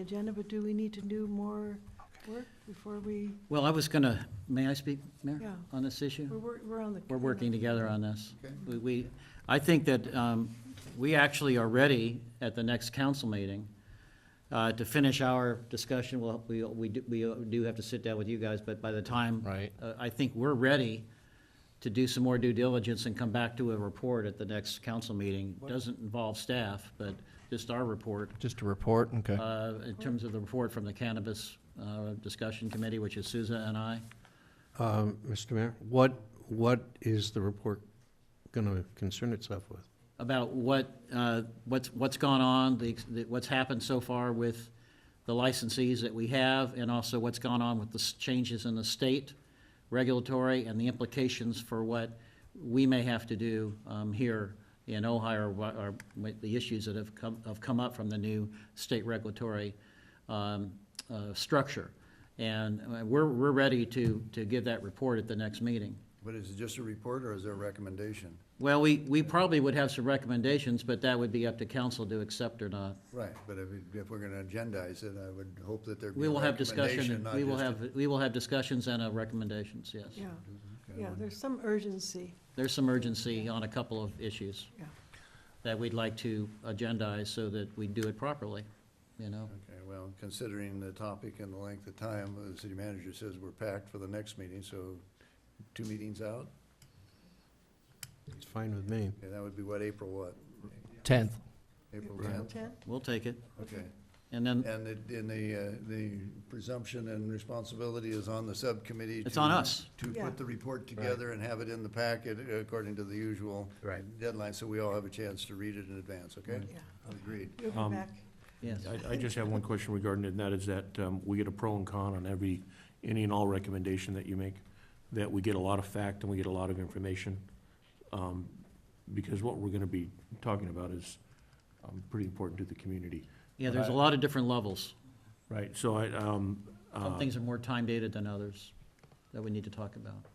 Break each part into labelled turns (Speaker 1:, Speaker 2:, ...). Speaker 1: agenda, but do we need to do more work before we,
Speaker 2: Well, I was gonna, may I speak,
Speaker 1: Yeah.
Speaker 2: Mayor, on this
Speaker 1: we're,
Speaker 2: issue?
Speaker 1: wor- we're on the.
Speaker 2: We're working together on this.
Speaker 3: Okay.
Speaker 2: We- We, I think that um, we actually are ready at the next council meeting uh, to finish our discussion. Well, we, we do- we do have to sit down with you guys, but by the time.
Speaker 4: Right.
Speaker 2: uh, I think we're ready to do some more due diligence and come back to a report at the next council meeting. Doesn't involve staff, but just our report.
Speaker 4: Just a report, okay.
Speaker 2: uh, in terms of the report from the Cannabis uh, Discussion Committee, which is Souza and I.
Speaker 5: Um, Mr. Mayor, what, what is the report going to concern itself with?
Speaker 2: about what, uh, what's, what's gone on, the, the- what's happened so far with the licensees that we have, and also what's gone on with the s- changes in the state regulatory and the implications for what we may have to do um, here in Ohio, or what are what the issues that have come, have come up from the new state regulatory um, uh, structure. And uh, we're, we're ready to, to give that report at the next meeting.
Speaker 3: But is it just a report or is there a recommendation?
Speaker 2: Well, we, we probably would have some recommendations, but that would be up to council to accept or not.
Speaker 3: Right, but if, it- if we're gonna agendize it, I would hope that there'd be
Speaker 2: We
Speaker 3: a
Speaker 2: will have
Speaker 3: recommendation,
Speaker 2: discussion,
Speaker 3: not
Speaker 2: we will
Speaker 3: just a-
Speaker 2: have, we will have discussions and uh, recommendations, yes.
Speaker 1: Yeah, yeah, there's some urgency,
Speaker 2: There's some urgency on a couple of issues
Speaker 1: yeah.
Speaker 2: that we'd like to agendize so that we do it properly, you know?
Speaker 3: Okay, well, considering the topic and the length of time, the city manager says we're packed for the next meeting, so two meetings out?
Speaker 5: It's fine with me.
Speaker 3: Okay, that would be what, April what?
Speaker 4: Tenth.
Speaker 3: April
Speaker 1: April
Speaker 3: tenth?
Speaker 1: 10th?
Speaker 2: We'll take it.
Speaker 3: Okay.
Speaker 2: And then
Speaker 3: And the, and the, uh, the presumption and responsibility is on the subcommittee.
Speaker 2: It's
Speaker 3: to-
Speaker 2: on us.
Speaker 3: To
Speaker 1: Yeah.
Speaker 3: put the report together and have it in the packet uh, according to the usual.
Speaker 2: Right.
Speaker 3: Deadline, so we all have a chance to read it in advance, okay?
Speaker 1: Yeah,
Speaker 3: Agreed.
Speaker 1: you'll
Speaker 6: Um,
Speaker 1: be back.
Speaker 2: Yes.
Speaker 6: I, I just have one question regarding it, and that is that um, we get a pro and con on every, any and all recommendation that you make, that we get a lot of fact and we get a lot of information. um, Because what we're gonna be talking about is um, pretty important to the community,
Speaker 2: Yeah, there's a lot of different levels.
Speaker 6: right? So I, um,
Speaker 2: Some
Speaker 6: uh,
Speaker 2: things are more time dated than others that we need to talk about.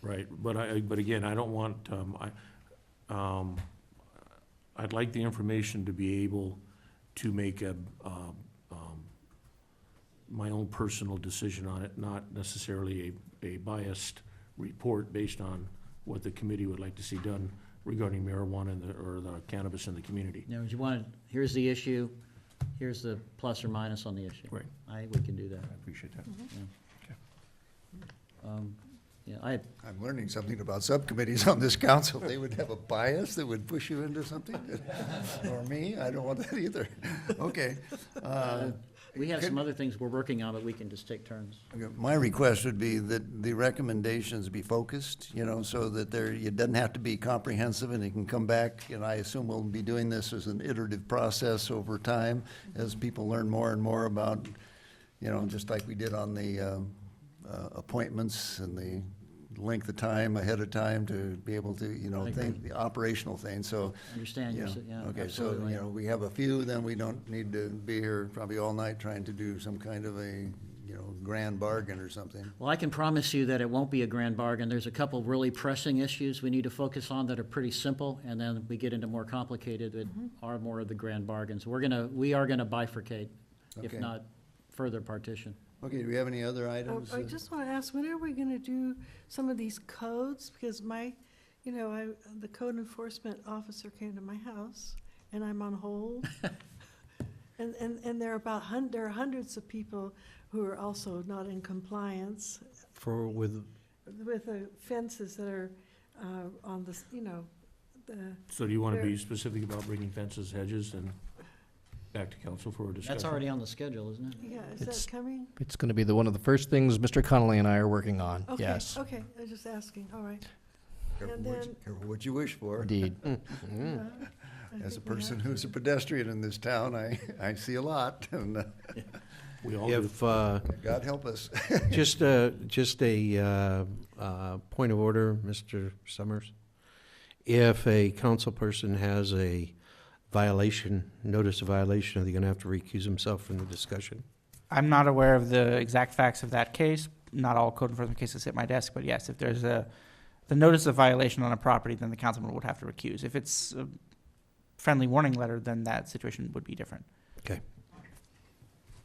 Speaker 6: right, but I, but again, I don't want, um, I, um, I'd like the information to be able to make a, um, um, my own personal decision on it, not necessarily a, a biased report based on what the committee would like to see done regarding marijuana and the, or the cannabis in the community.
Speaker 2: You know, you want, here's the issue, here's the plus or minus on the issue.
Speaker 6: Right.
Speaker 2: I, we can do that.
Speaker 6: I appreciate that.
Speaker 2: Um, Yeah, I,
Speaker 3: I'm learning something about subcommittees on this council. They would have a bias that would push you into something, or me, I don't want that either. Okay. uh,
Speaker 2: we have some other things we're working on, but we can just take turns.
Speaker 3: My request would be that the recommendations be focused, you know, so that there, it doesn't have to be comprehensive and it can come back. And I assume we'll be doing this as an iterative process over time as people learn more and more about, you know, just like we did on the um, uh, appointments and the length of time ahead of time to be able to, you know,
Speaker 2: I agree.
Speaker 3: think, the operational thing, so.
Speaker 2: Understand your
Speaker 3: yeah,
Speaker 2: si- yeah,
Speaker 3: Okay, so,
Speaker 2: absolutely.
Speaker 3: you know, we have a few, then we don't need to be here probably all night trying to do some kind of a, you know, grand bargain or something.
Speaker 2: Well, I can promise you that it won't be a grand bargain. There's a couple really pressing issues we need to focus on that are pretty simple, and then we get into more complicated that are more of the grand bargains. We're gonna, we are gonna bifurcate, if
Speaker 3: Okay.
Speaker 2: not further partition.
Speaker 3: Okay, do we have any other
Speaker 1: Oh,
Speaker 3: items?
Speaker 1: I just want to ask, when are we going to do some of these codes? Because my, you know, I, the code enforcement officer came to my house, and I'm on hold. And, and, and there are about hun, there are hundreds of people who are also not in compliance
Speaker 5: For, with,
Speaker 1: with the fences that are uh, on the, s- you know, the,
Speaker 6: So do you wanna
Speaker 1: There-
Speaker 6: be specific about bringing fences, hedges, and back to council for a discussion?
Speaker 2: That's already on the schedule, isn't it?
Speaker 1: yeah, is
Speaker 4: It's-
Speaker 1: that coming?
Speaker 4: It's gonna be the, one of the first things Mr. Connolly and I are working on,
Speaker 1: Okay,
Speaker 4: yes.
Speaker 1: Okay, I was just asking, all right.
Speaker 3: Uh, Careful
Speaker 1: And
Speaker 3: what you-
Speaker 1: then-
Speaker 3: Careful what you wish for.
Speaker 4: Indeed.
Speaker 5: Mm-hmm.
Speaker 1: Uh, I
Speaker 3: Hmm. As
Speaker 1: think
Speaker 3: a
Speaker 1: we have
Speaker 3: person
Speaker 1: to.
Speaker 3: who's a pedestrian in this town, I, I see a lot, and uh,
Speaker 6: We all do.
Speaker 5: if, uh,
Speaker 3: God help us.
Speaker 5: just, uh, just a uh, uh, point of order, Mr. Summers. If a council person has a violation, notice of violation, are they going to have to recuse himself from the discussion?
Speaker 7: I'm not aware of the exact facts of that case. Not all code enforcement cases hit my desk, but yes, if there's a, the notice of violation on a property, then the councilman would have to recuse. If it's a friendly warning letter, then that situation would be different.
Speaker 5: Okay.